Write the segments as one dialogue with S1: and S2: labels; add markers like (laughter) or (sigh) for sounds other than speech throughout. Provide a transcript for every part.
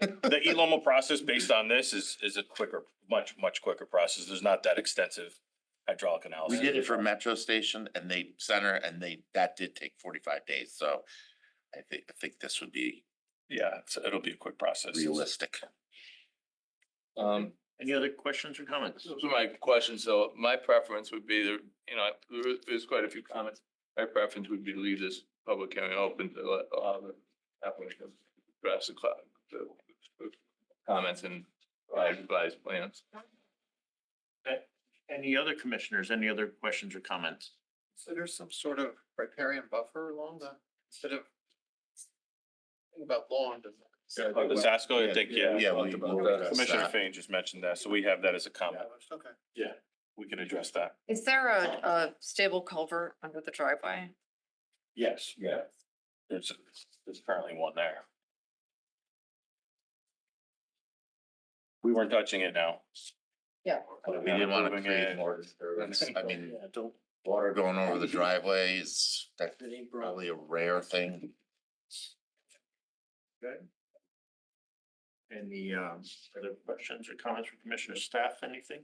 S1: The ELOMA process based on this is, is a quicker, much, much quicker process. There's not that extensive hydraulic
S2: We
S1: analysis.
S2: did it for Metro Station and they center and they, that did take forty-five days, so I think, I think this would be
S1: Yeah, it's- it'll be a quick process.
S2: realistic.
S3: Um,
S4: Any other questions or comments?
S3: those are my questions, so my preference would be, there. you know, there is- there's quite a few comments. My preference would be to leave this public hearing open to let allow the applicant to address the cloud, the the comments and provide revised plans.
S4: Any other commissioners, any other questions or comments?
S5: So there's some sort of riparian buffer along the, instead of. think About lawn, does
S1: Uh, The Zasco, I think, yeah.
S2: Yeah, we-
S3: talked about
S2: we'll
S3: that.
S2: address
S1: Commissioner
S2: that.
S1: Fain just mentioned that, so we have that as a comment.
S5: Okay.
S1: We can address that.
S6: Is there a, a stable culvert under the driveway?
S1: Yes. Yeah. There's, there's currently one there. We weren't touching it now.
S6: Yeah.
S2: We didn't wanna
S1: Moving
S2: create
S1: it.
S2: more disturbance. I mean,
S5: Yeah, don't.
S2: water going over the driveway is, that's
S5: It ain't broad.
S2: probably a rare thing.
S4: Any um other questions or comments from commissioner staff, anything?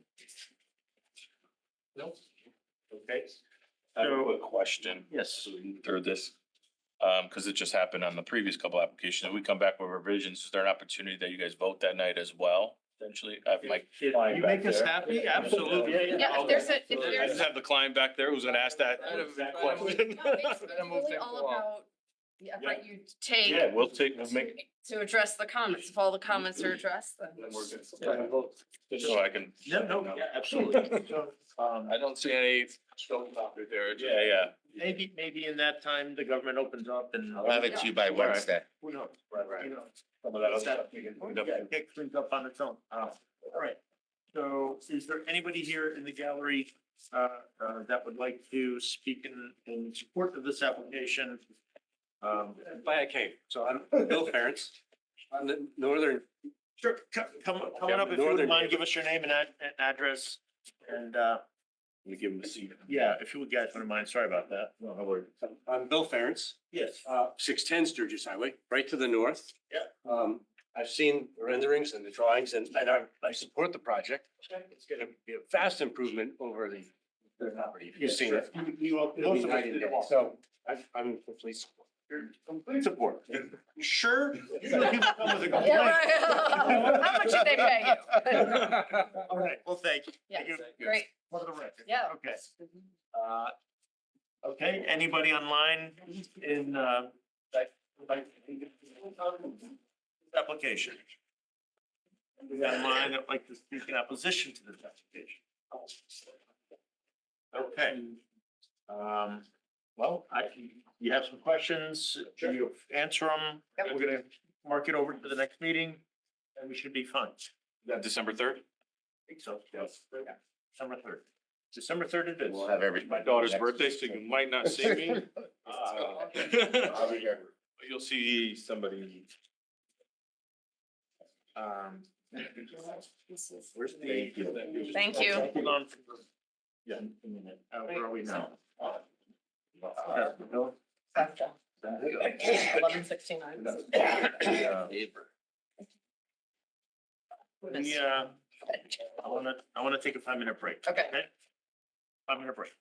S4: No. Okay,
S1: (laughs) I have a quick question.
S4: yes,
S1: Through this, um, because it just happened on the previous couple applications. If we come back with revisions, is there an opportunity that you guys vote that night as well? Potentially, I have my. client
S4: you
S1: back
S4: make us
S1: there.
S4: happy, absolutely.
S6: Yeah, if there's a, if
S1: I
S6: there's.
S1: just have the client back there who's gonna ask that
S3: Out of-
S1: that
S3: out of- (laughs)
S1: question.
S6: No, it's- it's
S3: That moves
S6: really
S3: things
S6: all
S3: along.
S6: about the effort you
S1: Yeah,
S6: take
S1: we'll take, we'll make,
S6: to- to address the comments. If all the comments are addressed, then.
S3: Then we're good.
S1: just (laughs) so I can.
S4: No, no, yeah,
S1: (laughs)
S4: absolutely. So, Um,
S3: I don't see any showstopper there.
S1: Yeah, yeah.
S4: maybe, maybe in that time, the government opens up and.
S2: I'll have it to you by
S4: All right.
S2: Wednesday.
S4: Who knows?
S1: Right, right.
S4: You know.
S1: Some of that other
S4: That-
S1: stuff we can- we
S4: Yeah,
S1: can-
S4: it cleans up on its own. Uh, all right. So is there anybody here in the gallery, uh, uh, that would like to speak in, in support of this application? Um,
S7: By a cave. So I'm Bill Ferentz. I'm the northern,
S4: sure, come, come, come on up if you wouldn't mind, give us your name and ad, and address. And, uh,
S1: We give them a seat.
S4: yeah, if you guys wouldn't mind, sorry about that. No, no worries.
S7: I'm Bill Ferentz,
S4: Yes.
S7: uh, six ten Sturgis Highway, right to the north.
S4: Yeah.
S7: Um, I've seen the renderings and the drawings and, and I, I support the project. It's gonna be a vast improvement over the, the property. If You've seen it.
S4: You all-
S7: It'll be
S4: most of
S7: night
S4: us
S7: and
S4: did
S7: day.
S4: walk.
S7: So I'm, I'm complete support.
S4: Complete support. You
S6: (laughs)
S4: Sure. Usually people come with a
S6: Yeah,
S4: complaint.
S6: right. (laughs) How much did they pay
S1: (laughs)
S6: you?
S4: All right, well, thank you.
S6: Yeah,
S4: Thank you
S6: great.
S4: For the record.
S6: Yeah.
S4: Okay. Uh, Okay, anybody online in, uh, that- like, application? Anybody online that'd like to speak in opposition to this application? Okay. Um, well, I, you have some questions, you answer them,
S6: Yep.
S4: we're gonna mark it over to the next meeting, and we should be fine.
S1: That December third?
S4: Think so, yes. December third. December third it is.
S2: We'll have every.
S1: My daughter's birthday, so you might not see me. Uh, but You'll see somebody.
S4: Um,
S1: Where's the?
S6: Thank you.
S4: Hold on. for- Yeah. a minute. Uh, Where are we now? Uh, no,
S6: Eleven sixty-nine.
S4: We, uh, I wanna, I wanna take a five minute break.
S6: Okay.
S4: Five minute break.